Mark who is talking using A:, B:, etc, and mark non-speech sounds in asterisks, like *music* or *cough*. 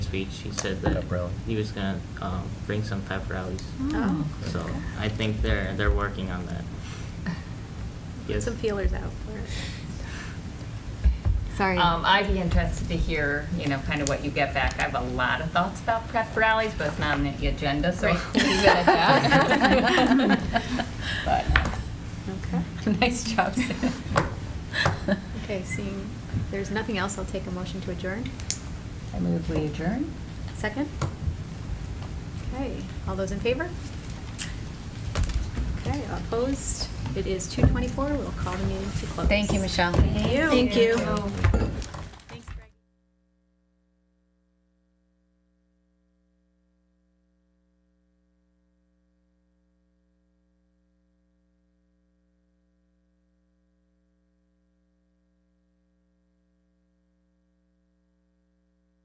A: speech, he said that
B: Pep rally.
A: he was gonna um, bring some pep rallies.
C: Oh.
A: So I think they're, they're working on that.
C: Put
A: Yes.
C: some feelers out for it.
D: Sorry.
E: Um, I'd be interested to hear, you know, kind of what you get back. I have a lot of thoughts about prep rallies, but it's not on the agenda, so.
D: Right.
E: we'll *laughs* leave it at *laughs* that.
C: Okay.
E: But, *laughs* nice job, Sam.
C: Okay, seeing there's nothing else, I'll take a motion to adjourn.
E: I move we adjourn.
C: Second? Okay, all those in favor? Okay, opposed? It is 2:24, we'll call the meeting to close.
E: Thank you, Michelle.
C: Thank you.